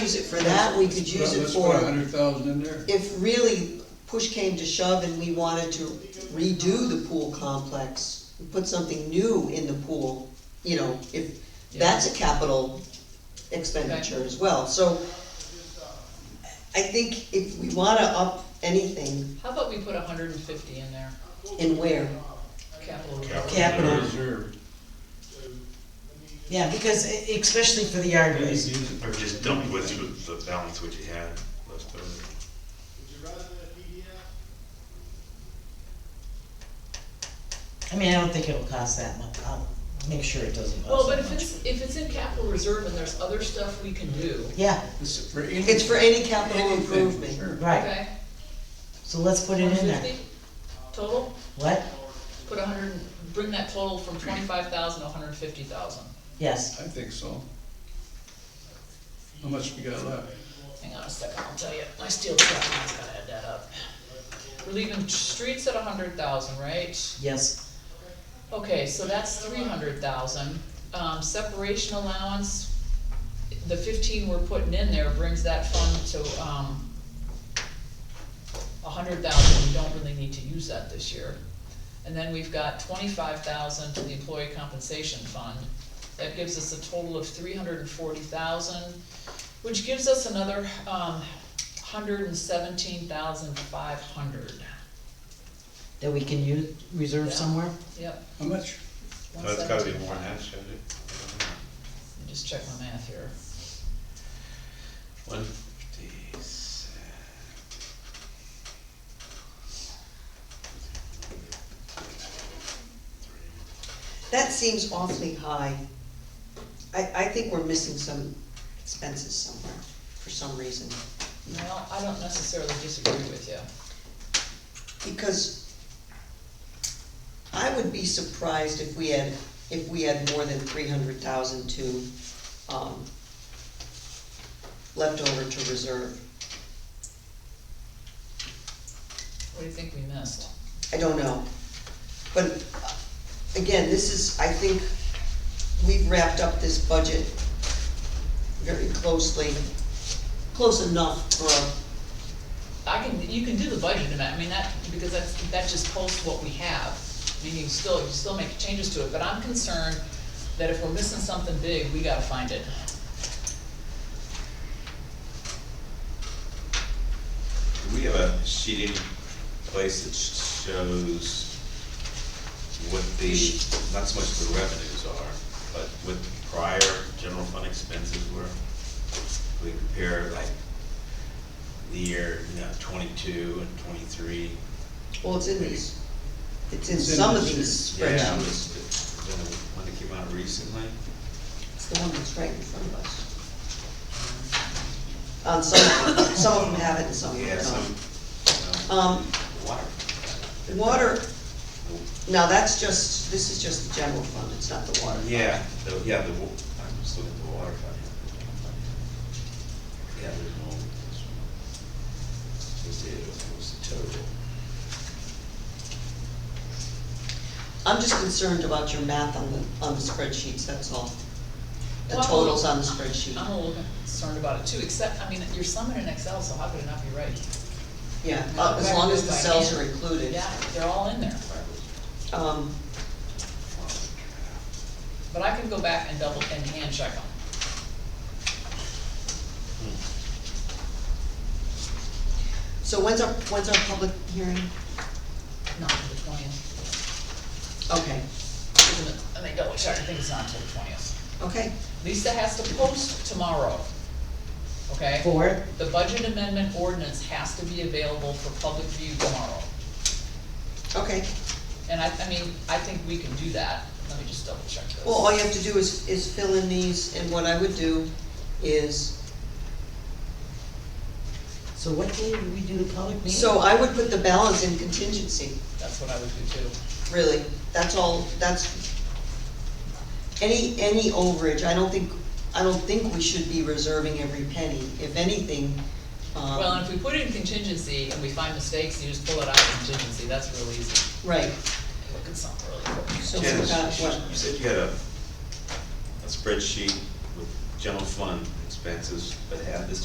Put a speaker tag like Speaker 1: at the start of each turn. Speaker 1: use it for that, we could use it
Speaker 2: Let's put a
Speaker 1: for,
Speaker 2: hundred thousand in there.
Speaker 1: if really push came to shove and we wanted to redo the pool complex, put something new in the pool, you know, if, that's a capital expenditure as well, so I think if we wanna up anything,
Speaker 3: How about we put hundred and fifty in there,
Speaker 1: in where,
Speaker 3: capital reserve?
Speaker 4: Capital.
Speaker 5: Capital,
Speaker 2: Reserve.
Speaker 5: yeah, because e- especially for the yard
Speaker 2: Please
Speaker 5: waste.
Speaker 2: use it.
Speaker 4: Or just dump what you, the balance what you had left over.
Speaker 5: I mean, I don't think it'll cost that much. I'll make sure it doesn't
Speaker 3: Well,
Speaker 5: cost
Speaker 3: but
Speaker 5: that
Speaker 3: if
Speaker 5: much.
Speaker 3: it's, if it's in capital reserve and there's other stuff we can do,
Speaker 5: Yeah,
Speaker 2: This is for any-
Speaker 1: it's for any capital
Speaker 2: anything,
Speaker 1: improvement.
Speaker 2: sure.
Speaker 5: right,
Speaker 3: okay?
Speaker 5: so let's put
Speaker 3: One
Speaker 5: it in there.
Speaker 3: fifty total,
Speaker 5: What?
Speaker 3: put hundred, bring that total from twenty-five thousand to hundred and fifty thousand.
Speaker 5: Yes,
Speaker 2: I think so. How much we got left?
Speaker 3: Hang on a second, I'll tell you, my steel trap, I has gotta add that up. We're leaving streets at hundred thousand, right?
Speaker 5: yes,
Speaker 3: Okay, so that's three hundred thousand. Um, separation allowance, the fifteen we're putting in there brings that fund to, um, a hundred thousand, we don't really need to use that this year. And then we've got twenty-five thousand to the employee compensation fund. That gives us a total of three hundred and forty thousand, which gives us another, um, hundred and seventeen thousand five hundred.
Speaker 5: that we can use, reserve
Speaker 3: Yeah.
Speaker 5: somewhere?
Speaker 3: Yep.
Speaker 2: How much?
Speaker 4: So That's gotta be more than that, shouldn't it?
Speaker 3: Let me Just check my math here.
Speaker 4: One fifty-six.
Speaker 1: That seems awfully high. I, I think we're missing some expenses somewhere, for some reason.
Speaker 3: Well, I don't necessarily disagree with you.
Speaker 1: Because I would be surprised if we had, if we had more than three hundred thousand to, um, left over to reserve.
Speaker 3: What do you think we missed?
Speaker 1: I don't know. But, uh, again, this is, I think, we've wrapped up this budget very closely, close enough for a
Speaker 3: I can, you can do the budget amendment, I mean, that, because that's, that just posts what we have. I mean, you still, you still make changes to it, but I'm concerned that if we're missing something big, we gotta find it.
Speaker 4: Do we have a sheet in place that sh- shows what the, not so much the revenues are, but what the prior general fund expenses were? We compare like the year, you know, twenty-two and twenty-three.
Speaker 1: Well, it's in these, it's in
Speaker 2: It's in
Speaker 1: some of
Speaker 2: this
Speaker 1: these
Speaker 4: Yeah, it
Speaker 1: spreadsheets.
Speaker 4: was the- the one that came out recently.
Speaker 1: It's the one that's right in front of us. On some, some of them have it and some of
Speaker 4: Yeah,
Speaker 1: them
Speaker 4: some, um,
Speaker 1: don't. Um,
Speaker 4: water.
Speaker 1: water, now that's just, this is just the general fund, it's not the water.
Speaker 4: Yeah, the, yeah, the, wa- I'm just looking at the water fund. Yeah, there's no, this one. Let's see, what was the total?
Speaker 1: I'm just concerned about your math on the, on the spreadsheets, that's all. The
Speaker 3: Well, uh-huh.
Speaker 1: totals on the spreadsheet,
Speaker 3: I'm a little concerned about it too, except, I mean, you're summing in Excel, so how could it not be right?
Speaker 1: yeah, uh, as long as the cells are included.
Speaker 3: Yeah, they're all in there,
Speaker 1: Um,
Speaker 3: but I can go back and double, and hand check them.
Speaker 1: so when's our, when's our public hearing?
Speaker 3: Not to the twentieth,
Speaker 1: Okay,
Speaker 3: let me double check, I think it's not till the twentieth.
Speaker 1: okay,
Speaker 3: Lisa has to post tomorrow, okay?
Speaker 5: Four?
Speaker 3: The budget amendment ordinance has to be available for public view tomorrow.
Speaker 1: okay.
Speaker 3: And I, I mean, I think we can do that. Let me just double check this.
Speaker 1: Well, all you have to do is, is fill in these, and what I would do is,
Speaker 5: So what day do we do the public meeting?
Speaker 1: so I would put the balance in contingency,
Speaker 3: That's what I would do too.
Speaker 1: really, that's all, that's, any, any overage, I don't think, I don't think we should be reserving every penny, if anything,
Speaker 3: Well,
Speaker 1: um,
Speaker 3: and if we put it in contingency and we find mistakes, you just pull it out of contingency. That's real easy.
Speaker 1: right,
Speaker 3: Look at something really quick.
Speaker 1: so
Speaker 4: Jen,
Speaker 1: we've got, what,
Speaker 4: You said you had a, a spreadsheet with general fund expenses, but had this